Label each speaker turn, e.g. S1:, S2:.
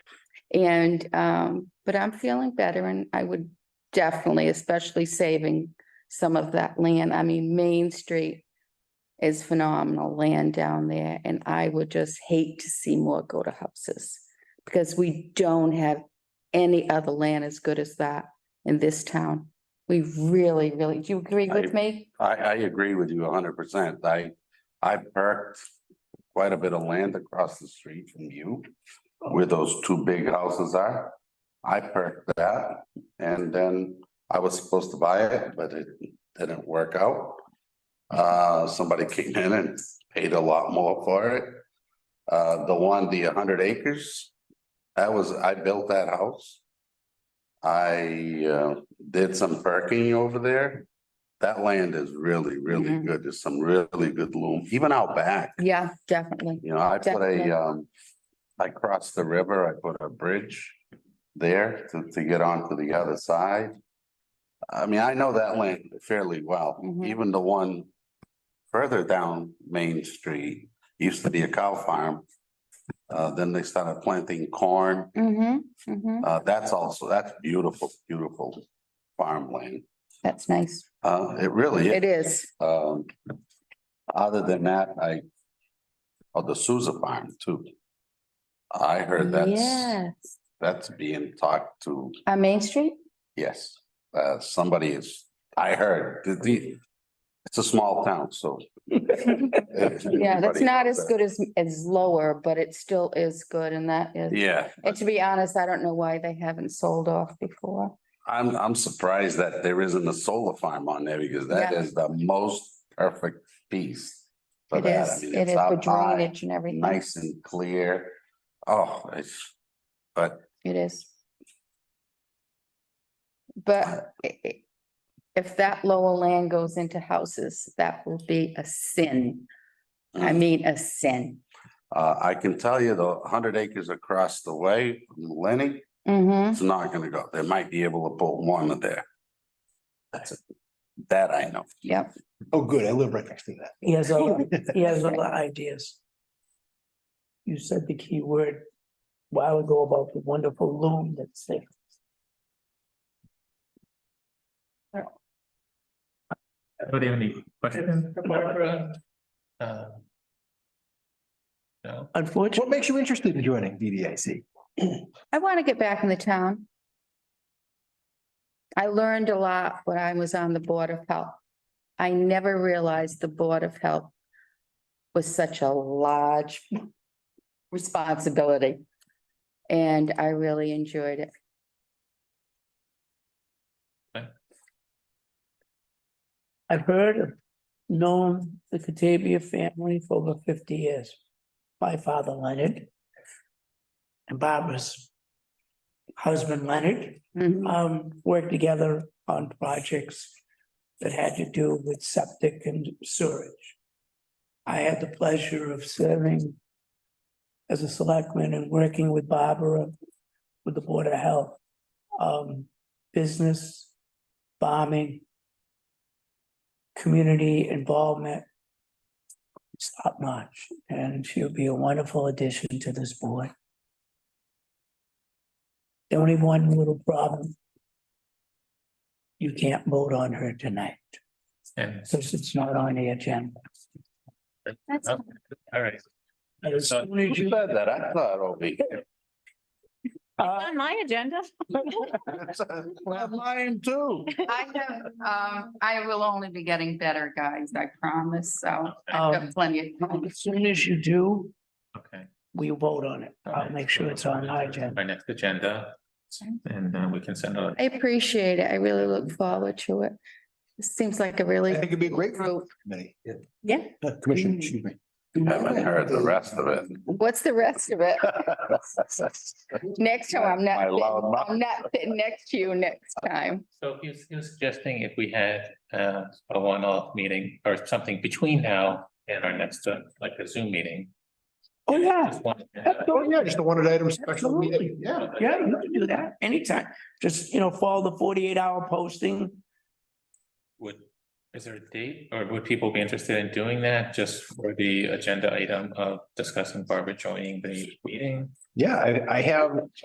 S1: And, um, but I'm feeling better and I would definitely, especially saving some of that land. I mean, Main Street is phenomenal land down there and I would just hate to see more go to houses because we don't have any other land as good as that in this town. We really, really, do you agree with
S2: I-
S1: me?
S2: I, I agree with you hundred percent. I, I perked quite a bit of land across the street from you where those two big houses are. I perked that and then I was supposed to buy it, but it didn't work out. Uh, somebody came in and paid a lot more for it. Uh, the one, the hundred acres, that was, I built that house. I, uh, did some perking over there. That land is really, really
S1: Mhm.
S2: good. There's some really good loom, even out back.
S1: Yeah, definitely.
S2: You know, I put
S1: Definitely.
S2: a, um, I crossed the river, I put a bridge there to, to get onto the other side. I mean, I know that land fairly well,
S1: Mhm.
S2: even the one further down Main Street, used to be a cow farm. Uh, then they started planting corn,
S1: Mm-hmm, mm-hmm.
S2: uh, that's also, that's beautiful, beautiful farmland.
S1: That's nice.
S2: Uh, it really is.
S1: It is.
S2: Um, other than that, I, oh, the Souza farm too. I heard that's,
S1: Yes.
S2: that's being talked to,
S1: On Main Street?
S2: yes, uh, somebody is, I heard, the- the, it's a small town, so.
S1: Yeah,
S2: Yeah,
S1: that's not as good as, as lower, but it still is good and that is,
S2: Yeah,
S1: and to be honest, I don't know why they haven't sold off before.
S2: I'm, I'm surprised that there isn't a solar farm on there because that
S1: Yeah.
S2: is the most perfect piece. for
S1: It
S2: that. I
S1: is,
S2: mean,
S1: it
S2: it's
S1: is for
S2: up high,
S1: drainage and everything.
S2: Nice and clear. Oh, it's, but
S1: It is. But i- i- if that lower land goes into houses, that will be a sin. I
S2: Mm.
S1: mean, a sin.
S2: Uh, I can tell you the hundred acres across the way from Lenny,
S1: Mm-hmm.
S2: it's not gonna go. They might be able to put one of there. That's it. That I know.
S1: Yep,
S3: Oh, good. I live right next to that.
S4: He has other, he has other ideas. You said the key word a while ago about the wonderful loom that's there.
S5: Anybody have any questions? for Barbara? Uh, No,
S3: What
S4: Unfortunately,
S3: makes you interested in joining DDIC?
S1: I want to get back in the town. I learned a lot when I was on the Board of Health. I never realized the Board of Health was such a large responsibility. And I really enjoyed it.
S4: I've heard, of known the Catavia family for over fifty years. My father Leonard. And Barbara's husband Leonard.
S1: Mhm.
S4: um, worked together on projects that had to do with septic and sewage. I had the pleasure of serving as a selectman and working with Barbara, with the Board of Health, um, business, bombing, community involvement. It's top notch, and she'll be a wonderful addition to this board. The only one little problem. You can't vote on her tonight,
S5: and,
S4: since it's not on the agenda.
S1: That's
S5: oh, all right,
S4: But as
S5: Uh,
S4: soon as
S2: You
S4: you-
S2: said that, I thought oh, over here.
S4: Uh,
S6: my agenda.
S2: I'm lying too.
S1: I have, um, I will only be getting better, guys, I promise, so I've got
S4: Um,
S1: plenty of time.
S4: As soon as you do,
S5: okay.
S4: we vote on it. I'll make sure it's on my agenda.
S5: Our next agenda, and uh, we can send out.
S1: I appreciate it, I really look forward to it. It seems like a
S3: I
S1: really.
S3: think it'd be a great
S1: group.
S3: committee.
S1: Yeah.
S3: Uh, Commission, excuse me.
S4: Oh,
S2: Haven't heard the rest of it.
S1: What's the rest of it? Next time, I'm not,
S2: My loud
S1: sitting-
S2: mouth.
S1: I'm not sitting next to you next time.
S5: So he was, he was suggesting if we had uh, a one-off meeting or something between now and our next, uh, like a Zoom meeting.
S4: Oh, yeah,
S5: Just one-
S3: Oh, yeah, just a wanted item special
S4: Absolutely.
S3: meeting. Yeah.
S4: yeah, you can do that anytime. Just, you know, follow the forty-eight hour posting.
S5: Would, is there a date or would people be interested in doing that just for the agenda item of discussing Barbara joining the meeting?
S3: Yeah, I, I have